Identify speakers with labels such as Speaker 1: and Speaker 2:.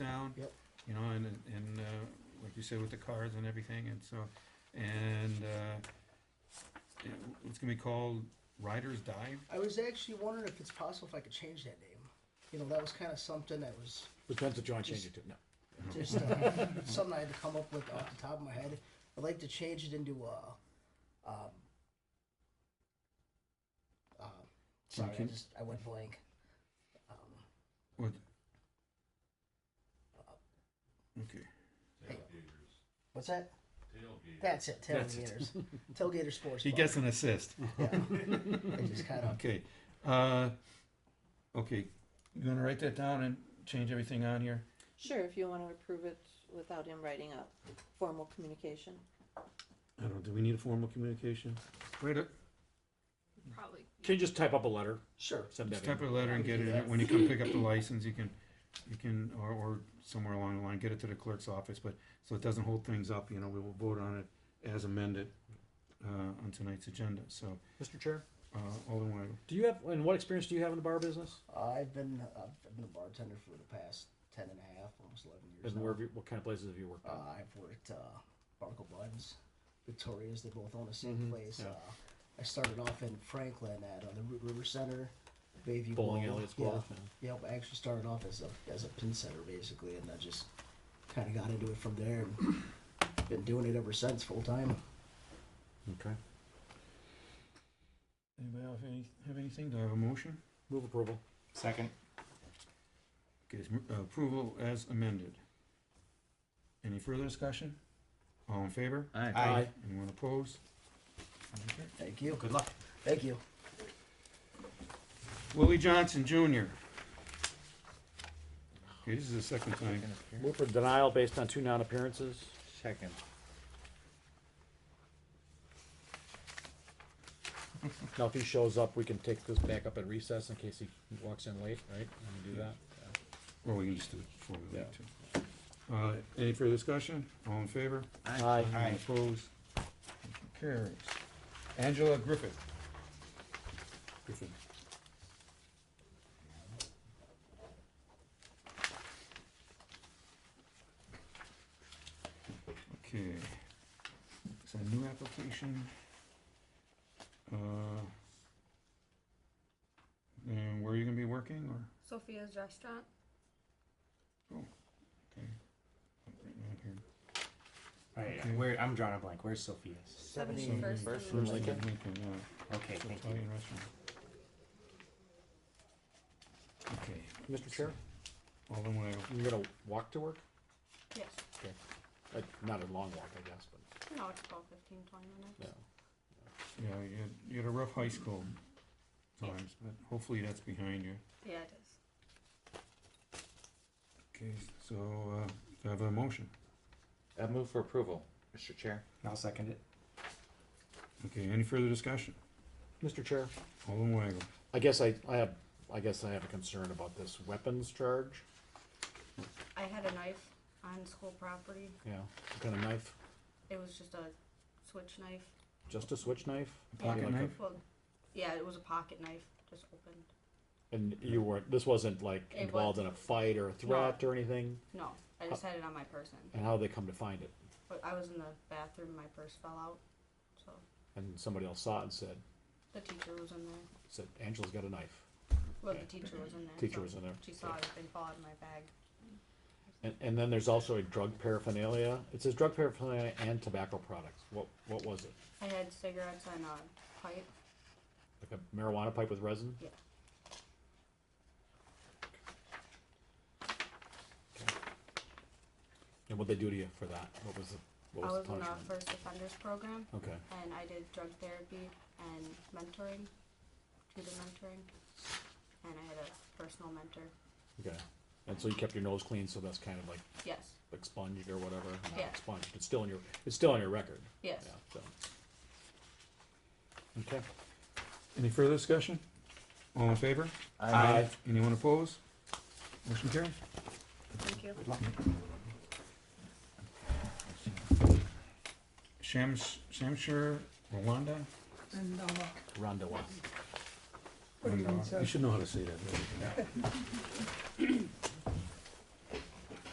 Speaker 1: down.
Speaker 2: Yep.
Speaker 1: You know, and, and, uh, like you said, with the cars and everything, and so, and, uh, yeah, it's gonna be called Riders Dive.
Speaker 2: I was actually wondering if it's possible if I could change that name. You know, that was kind of something that was
Speaker 3: The Pencil John changed it to, no.
Speaker 2: just uh, something I had to come up with off the top of my head. I'd like to change it into uh, um, uh, sorry, I
Speaker 1: Okay.
Speaker 2: just I went blank. Um,
Speaker 1: What? Okay,
Speaker 4: Tailgaters.
Speaker 2: uh, what's that?
Speaker 4: Tailgaters.
Speaker 2: That's it.
Speaker 1: That's
Speaker 2: Tailgaters. Tailgater Sports.
Speaker 1: he
Speaker 2: Bar.
Speaker 1: gets an assist.
Speaker 2: Yeah. I just kind of
Speaker 1: Okay, uh, okay, you gonna write that down and change everything on here?
Speaker 5: Sure, if you wanna approve it without him writing a formal communication.
Speaker 1: I don't, do we need a formal communication? Wait, a-
Speaker 6: Probably.
Speaker 3: Can you just type up a letter,
Speaker 2: sure.
Speaker 3: send
Speaker 1: Just
Speaker 3: that in?
Speaker 1: type a letter and get it, in. when you come pick up the license, you can, you can, or, or somewhere along the line, get it to the clerk's office, but, so it doesn't hold things up, you know, we will vote on it as amended, uh, on tonight's agenda, so,
Speaker 3: Mr. Chair,
Speaker 1: uh, Alderman Weigl.
Speaker 3: do you have, and what experience do you have in the bar business?
Speaker 2: I've been I've been a bartender for the past ten and a half, almost eleven years.
Speaker 3: And
Speaker 2: now.
Speaker 3: where, have you- what kind of places have you worked
Speaker 2: Uh,
Speaker 3: at?
Speaker 2: I've worked uh, Barnacle Buns, Victoria's. They both own the same place.
Speaker 3: yeah.
Speaker 2: Uh, I started off in Franklin at uh, the Root River Center, Bayview
Speaker 3: Bowling
Speaker 2: Bowl.
Speaker 3: alley, it's
Speaker 2: Yeah.
Speaker 3: called.
Speaker 2: Yep. I actually started off as a as a pin setter basically, and I just kind of got into it from there. and Been doing it ever since, full time.
Speaker 3: Okay.
Speaker 1: Anybody else have any, have anything, do I have a motion?
Speaker 3: Move approval.
Speaker 7: Second.
Speaker 1: Okay, it's m- uh, approval as amended. Any further discussion? All in favor?
Speaker 7: Aye.
Speaker 1: Anyone opposed? Okay.
Speaker 2: Thank you.
Speaker 7: Good luck.
Speaker 2: Thank you.
Speaker 1: Willie Johnson Junior. Okay, this is the second time.
Speaker 3: Move for denial based on two non-appearances.
Speaker 7: Second.
Speaker 3: Now, if he shows up, we can take this back up at recess in case he walks in late, right? And we do that.
Speaker 1: Or we can just do it before we leave too. Uh, any further discussion? All in favor?
Speaker 3: Aye.
Speaker 1: Any Opposed? Motion Carries. Angela Griffith. Griffin. Okay. It's a new application. Uh. And where are you gonna be working or?
Speaker 6: Sophia's restaurant.
Speaker 1: Okay. Right down here.
Speaker 7: Alright,
Speaker 1: Okay.
Speaker 7: where, I'm drawing a blank, where's Sophia's?
Speaker 2: Seventy.
Speaker 1: Seventy
Speaker 6: First
Speaker 1: First
Speaker 6: and
Speaker 1: Lincoln,
Speaker 3: Lincoln.
Speaker 1: yeah.
Speaker 7: Okay, thank you.
Speaker 1: Italian restaurant. Okay,
Speaker 3: Mr. Chair,
Speaker 1: Alderman Weigl.
Speaker 3: you're gonna walk to work?
Speaker 6: Yes.
Speaker 3: Like, not a long walk, I guess, but,
Speaker 6: No, it's about 15, 20 minutes.
Speaker 3: yeah.
Speaker 1: Yeah, you had, you had a rough high school times, but hopefully that's behind you.
Speaker 6: Yeah, it is.
Speaker 1: Okay, so, uh, do I have a motion?
Speaker 8: I Uh, move for approval, Mr. Chair.
Speaker 7: I'll second it.
Speaker 1: Okay, any further discussion?
Speaker 3: Mr. Chair,
Speaker 1: Alderman Weigl.
Speaker 3: I guess I, I have, I guess I have a concern about this weapons charge.
Speaker 6: I had a knife on school property.
Speaker 3: Yeah, what kind of knife?
Speaker 6: It was just a switch knife.
Speaker 3: Just a switch knife?
Speaker 1: Pocket
Speaker 3: Like a-
Speaker 1: knife?
Speaker 6: Well, yeah, it was a pocket knife, just opened.
Speaker 3: And you weren't, this wasn't like
Speaker 6: It
Speaker 3: involved in a fight or a threat or anything?
Speaker 6: No, I just had it on my person.
Speaker 3: And how they come to find it?
Speaker 6: But I was in the bathroom, my purse fell out. So
Speaker 3: And somebody else saw it and said,
Speaker 6: the teacher was in there.
Speaker 3: said, Angela's got a knife.
Speaker 6: Well, the teacher was in there.
Speaker 3: Teacher
Speaker 6: so
Speaker 3: was in there.
Speaker 6: She saw everything fall out of my bag.
Speaker 3: And, and then there's also a drug paraphernalia. It says drug paraphernalia and tobacco products. What, what was it?
Speaker 6: I had cigarettes and a pipe.
Speaker 3: Like a marijuana pipe with resin?
Speaker 6: Yeah.
Speaker 3: Okay. And what'd they do to you for that? What was the,
Speaker 6: I
Speaker 3: what was the
Speaker 6: was in a
Speaker 3: punishment?
Speaker 6: first offenders program.
Speaker 3: Okay,
Speaker 6: and I did drug therapy and mentoring, tutor mentoring, and I had a personal mentor.
Speaker 3: okay. And so you kept your nose clean, so that's kind of like
Speaker 6: Yes,
Speaker 3: expunged or whatever, not
Speaker 6: Yeah.
Speaker 3: expunged, it's still in your, it's still on your record.
Speaker 6: yes.
Speaker 3: Yeah, so. Okay.
Speaker 1: Any further discussion? All in favor?
Speaker 3: Aye.
Speaker 1: Anyone opposed? Motion carries.
Speaker 6: Thank you.
Speaker 1: Shams, Shamsher, Rwanda?
Speaker 9: And um,
Speaker 3: Rondewa.
Speaker 9: What do you mean, sir?
Speaker 1: You should know how to say that.